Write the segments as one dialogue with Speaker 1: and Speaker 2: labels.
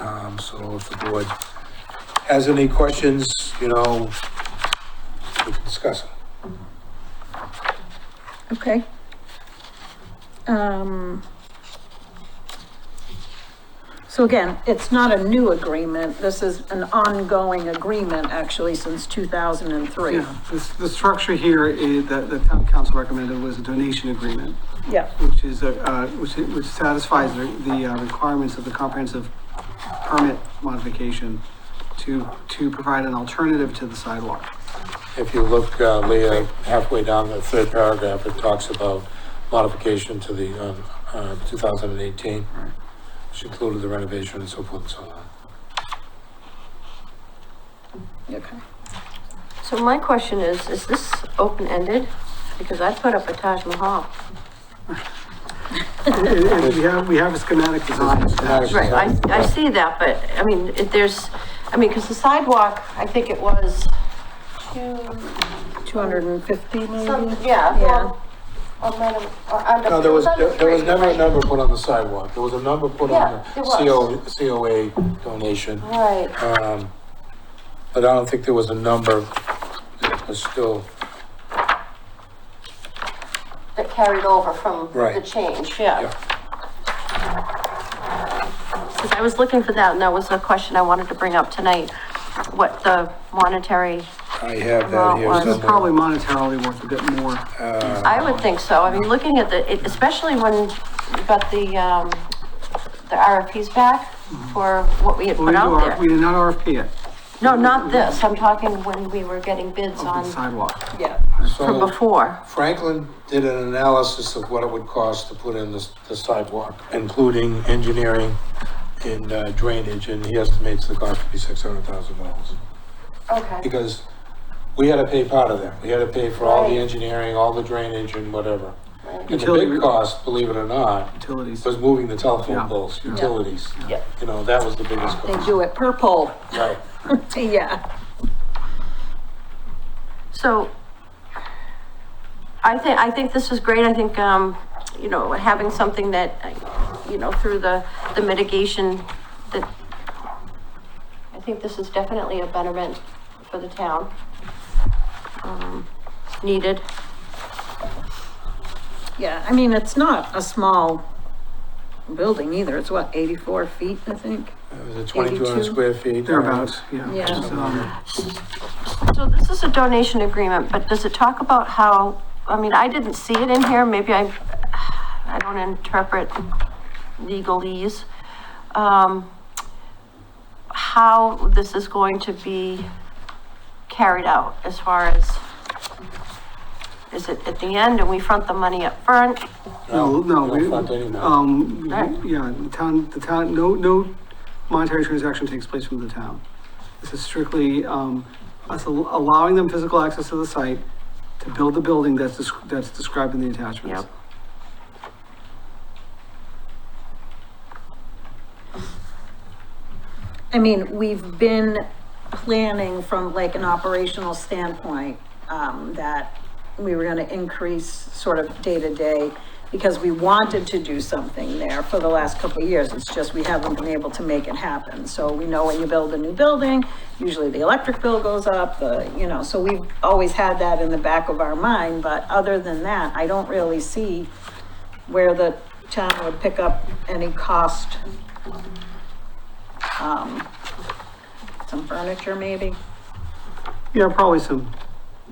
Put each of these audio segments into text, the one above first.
Speaker 1: Um, So if the board has any questions, you know, we can discuss them.
Speaker 2: Okay. Um, So again, it's not a new agreement. This is an ongoing agreement, actually, since 2003.
Speaker 3: Yeah, this, the structure here is, that the town council recommended was a donation agreement,
Speaker 2: Yeah,
Speaker 3: which is, a, uh, which, which satisfies the, the uh, requirements of the comprehensive permit modification to, to provide an alternative to the sidewalk.
Speaker 1: If you look, uh, Leah, halfway down the third paragraph, it talks about modification to the, um, uh, 2018, which included the renovation and so forth and so on.
Speaker 2: okay.
Speaker 4: So my question is, is this open-ended? Because I put up a Taj Mahal.
Speaker 3: And- and We have, we have a schematic design. of that.
Speaker 4: Right, I, I see that, but, I mean, it, there's, I mean, because the sidewalk, I think it was two,
Speaker 2: 250
Speaker 4: some,
Speaker 2: maybe?
Speaker 4: Mm-hmm. yeah,
Speaker 2: Yeah.
Speaker 4: well, or might have, or under.
Speaker 1: No, there was,
Speaker 4: it under
Speaker 1: there was
Speaker 4: three,
Speaker 1: never a
Speaker 4: right?
Speaker 1: number put on the sidewalk. There was a number put on
Speaker 4: Yeah,
Speaker 1: the
Speaker 4: there was.
Speaker 1: CO, COA donation.
Speaker 4: Right,
Speaker 1: Um, but I don't think there was a number that was still,
Speaker 4: that carried over from the
Speaker 1: Right.
Speaker 4: change, yeah.
Speaker 1: yeah.
Speaker 4: Because I was looking for that, and that was a question I wanted to bring up tonight, what the monetary,
Speaker 1: I have that
Speaker 4: Well, it
Speaker 1: here
Speaker 4: was
Speaker 3: It's
Speaker 1: somewhere.
Speaker 3: probably monetarily worth a bit more.
Speaker 1: Uh,
Speaker 4: I would think so, I mean, looking at the, it- especially when you got the, um, the RFPs back for what we had
Speaker 3: Well, we
Speaker 4: put out
Speaker 3: do
Speaker 4: there.
Speaker 3: R- We did not RFP it,
Speaker 4: No, not this, I'm talking when we were getting bids
Speaker 3: open
Speaker 4: on,
Speaker 3: sidewalk.
Speaker 2: Yeah.
Speaker 4: from
Speaker 1: so
Speaker 4: before.
Speaker 1: Franklin did an analysis of what it would cost to put in this, the sidewalk, including engineering and uh, drainage, and he estimates the cost to be six hundred thousand dollars.
Speaker 4: Okay.
Speaker 1: Because we had to pay part of that. We had to pay for all the
Speaker 4: Right.
Speaker 1: engineering, all the drainage and whatever. And the
Speaker 3: Utility-
Speaker 1: big cost, believe it or not,
Speaker 3: Utilities.
Speaker 1: was moving the
Speaker 3: Yeah.
Speaker 1: telephone poles, utilities.
Speaker 4: Yeah.
Speaker 1: You know, that was the biggest
Speaker 2: They
Speaker 1: cost.
Speaker 2: do it purple.
Speaker 1: Right.
Speaker 2: Yeah.
Speaker 4: So I think, I think this is great. I think, um, you know, having something that, you know, through the, the mitigation that I think this is definitely a betterment for the town. um, Needed.
Speaker 2: Yeah, I mean, it's not a small building either. It's what, 84 feet, I think?
Speaker 1: It was a twenty-two hundred
Speaker 2: 82?
Speaker 1: square feet.
Speaker 3: Thereabouts, yeah.
Speaker 2: Yeah.
Speaker 3: Just, um,
Speaker 4: So this is a donation agreement, but does it talk about how, I mean, I didn't see it in here, maybe I, I don't interpret legalese. Um, how this is going to be carried out as far as, is it at the end and we front the money up front?
Speaker 3: No, no,
Speaker 1: we
Speaker 3: we,
Speaker 1: don't front any money.
Speaker 3: um,
Speaker 4: Right.
Speaker 3: yeah, the town, the town, no, no monetary transaction takes place from the town. This is strictly, um, us al- allowing them physical access to the site to build the building that's, desc- that's described in the attachments.
Speaker 4: Yep.
Speaker 2: I mean, we've been planning from like an operational standpoint, um, that we were gonna increase sort of day to day because we wanted to do something there for the last couple of years. It's just we haven't been able to make it happen. So we know when you build a new building, usually the electric bill goes up, the, you know, so we've always had that in the back of our mind. But other than that, I don't really see where the town would pick up any cost some furniture maybe?
Speaker 3: Yeah, probably some,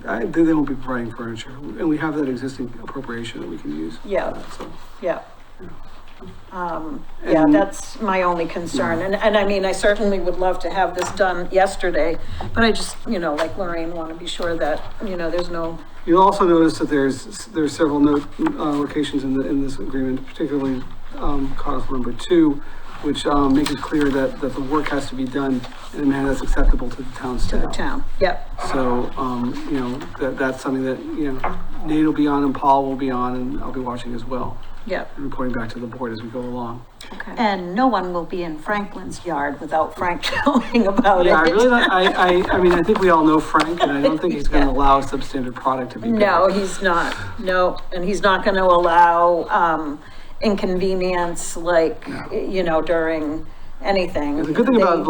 Speaker 3: I, they, they won't be providing furniture, and we have that existing appropriation that we can use.
Speaker 2: Yeah.
Speaker 3: So,
Speaker 2: Yeah. Um, yeah,
Speaker 3: And-
Speaker 2: that's my only concern, and, and I mean, I certainly would love to have this done yesterday, but I just, you know, like Lorraine, want to be sure that, you know, there's no,
Speaker 3: You'll also notice that there's, there's several note, uh, locations in the, in this agreement, particularly, um, cause number two, which, um, makes it clear that, that the work has to be done in a manner that's acceptable to the town
Speaker 2: to the
Speaker 3: staff.
Speaker 2: town, yep,
Speaker 3: So, um, you know, that, that's something that, you know, Nate will be on and Paul will be on and I'll be watching as well,
Speaker 2: yep.
Speaker 3: and reporting back to the board as we go along.
Speaker 4: Okay.
Speaker 2: And no one will be in Franklin's yard without Frank knowing about it.
Speaker 3: Yeah, I really, don't- I, I, I mean, I think we all know Frank and I don't think he's gonna allow a substandard product to be built.
Speaker 2: No, he's not. No, and he's not going to allow um, inconvenience like, you know, during anything.
Speaker 3: The good thing
Speaker 2: They-
Speaker 3: about